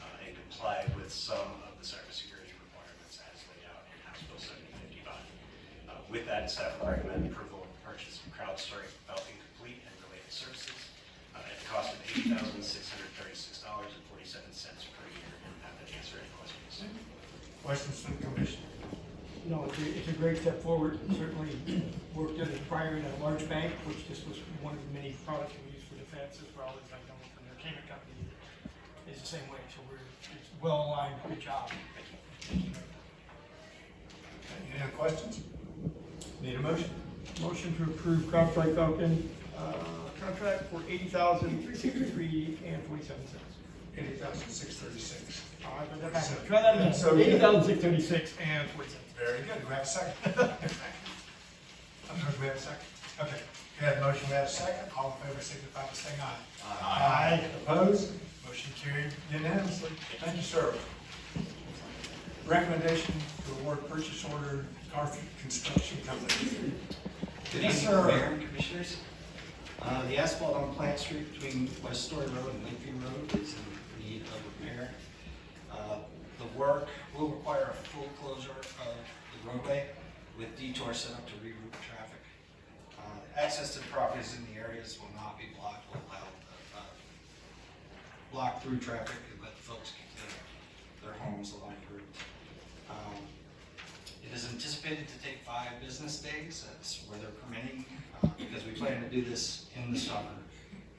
uh, with some of the cybersecurity requirements as laid out in House Bill 7055. Uh, With that, staff would recommend approval of the purchase of CrowdStrike Falcon Complete and related services uh, at a cost of $8,636.47 per year. And have that answer any questions. Questions from the commission? No, it's a, it's a great step forward, certainly worked as a prior in a large bank, which this was one of the many products we use for defense as well as I know from their payment company is the same way, so we're, it's well aligned, good job. Any other questions? Need a motion? Motion to approve CrowdStrike Falcon, uh, contract for eighty thousand, three sixty-three and forty-seven cents. Eighty thousand six thirty-six. Try that So- again, eighty thousand, six thirty-six and forty cents. Very good, do we have a second? I'm sorry, do we have a second? Okay, we have a motion, we have a second, all in favor, signify by saying aye. Aye. Opposed? Motion carried unanimously. Thank you, sir. Recommendation to award purchase order to Garfield Construction Company. Good Yes, evening, sir. Mayor and Commissioners. Uh, The asphalt on Plant Street between West Story Road and Lakeview Road is in need of repair. Uh, The work will require a full closure of the roadway with detour set up to reroute traffic. Uh, Access to the properties in the areas will not be blocked, will allow, uh, block through traffic and let folks get to their homes along the route. Um, it is anticipated to take five business days, that's where they're permitting, uh, because we plan to do this in the summer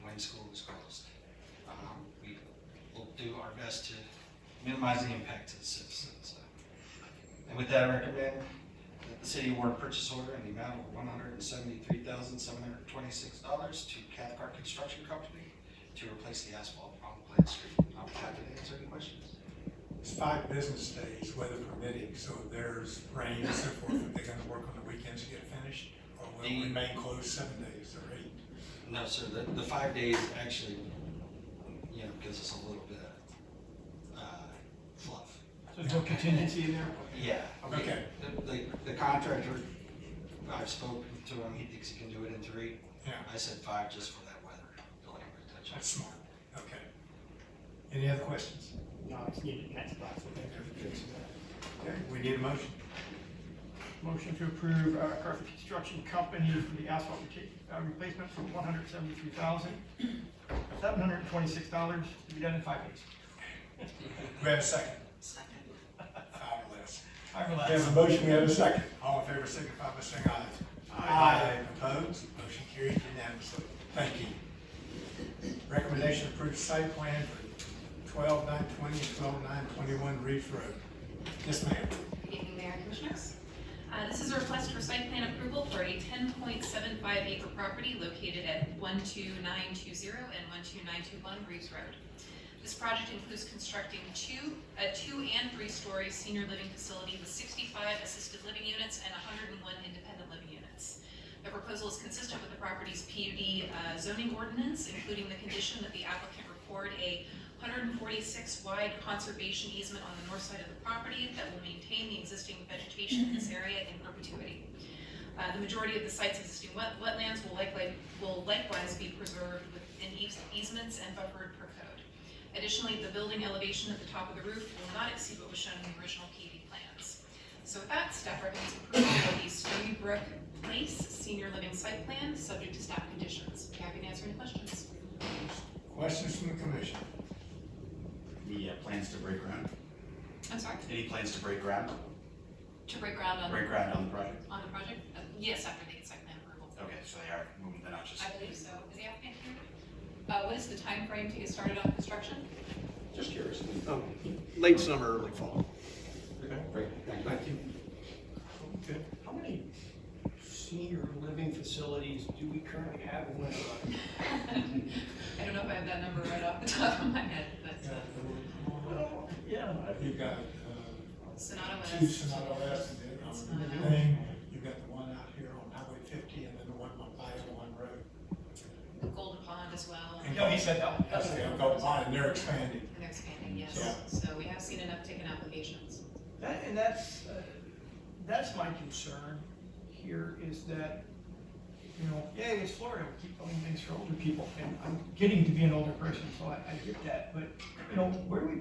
when school is closed. Um, We will do our best to minimize the impact to the citizens. And with that, I recommend that the city award purchase order in the amount of one hundred and seventy-three thousand, seven hundred and twenty-six dollars to Cathcart Construction Company to replace the asphalt on Plant Street. I'll be happy to answer any questions. It's five business days, weather permitting, so if there's rain and so forth, are they gonna work on the weekends to get it finished? Or will it The- remain closed seven days or eight? No, sir, the, the five days actually, you know, gives us a little bit of, uh, fluff. So there's no contingency in there? Yeah. Okay. The- The, the contractor, I've spoken to him, he thinks he can do it in three. Yeah, I said five just for that weather delay protection. that's smart, okay. Any other questions? No, it's needed, that's the last one. Okay, we need a motion. Motion to approve uh, Carver Construction Company for the asphalt reta- uh, replacement for one hundred seventy-three thousand, seven hundred twenty-six dollars to be done in five days. Do we have a second? Second. Five or less. Five or We have less. a motion, we have a second. All in favor, signify by saying aye. Aye. Opposed, motion carried unanimously. Thank you. Recommendation to approve site plan for twelve nine twenty and twelve nine twenty-one Reef Road. Yes, ma'am. Good evening, Mayor and Commissioners. Uh, This is a request for site plan approval for a 10.75 acre property located at 12920 and 12921 Reeves Road. This project includes constructing two, a two and three-story senior living facility with 65 assisted living units and 101 independent living units. The proposal is consistent with the property's PUD uh, zoning ordinance, including the condition that the applicant record a 146 wide conservation easement on the north side of the property that will maintain the existing vegetation in this area in perpetuity. Uh, The majority of the site's existing wet- wetlands will likely, will likewise be preserved within eas- easements and buffered per code. Additionally, the building elevation at the top of the roof will not exceed what was shown in the original PV plans. So with that, staff recommends approval of the Stony Brook Place Senior Living Site Plan, subject to staff conditions. Be Happy to answer any questions. Questions from the commission? Any uh, plans to break ground? I'm sorry? Any plans to break ground? To break ground on, Break ground on the project? on the project? Uh, Yes, after they get site plan approval. Okay, so they are moving the notches. I believe so. Is the applicant here? Uh, what is the timeframe to get started on construction? Just curious. Um, Late summer, early fall. Great, thank you. Okay. How many senior living facilities do we currently have in West Rock? I don't know if I have that number right off the top of my head, but uh, Yeah. You've got, uh, Sonata two West. Sonata West and then It's on not the out. thing, you've got the one out here on Highway fifty and then the one on five oh one road. Golden Pond as well, and Yeah, he said that. That's the, I've got mine, they're expanding. they're expanding, yes. Yeah. So we have seen an uptick in applications. That, and that's, uh, that's my concern here is that, you know, yeah, it's Florida, we keep doing things for older people, and I'm getting to be an older person, so I, I get that, but, you know, where do we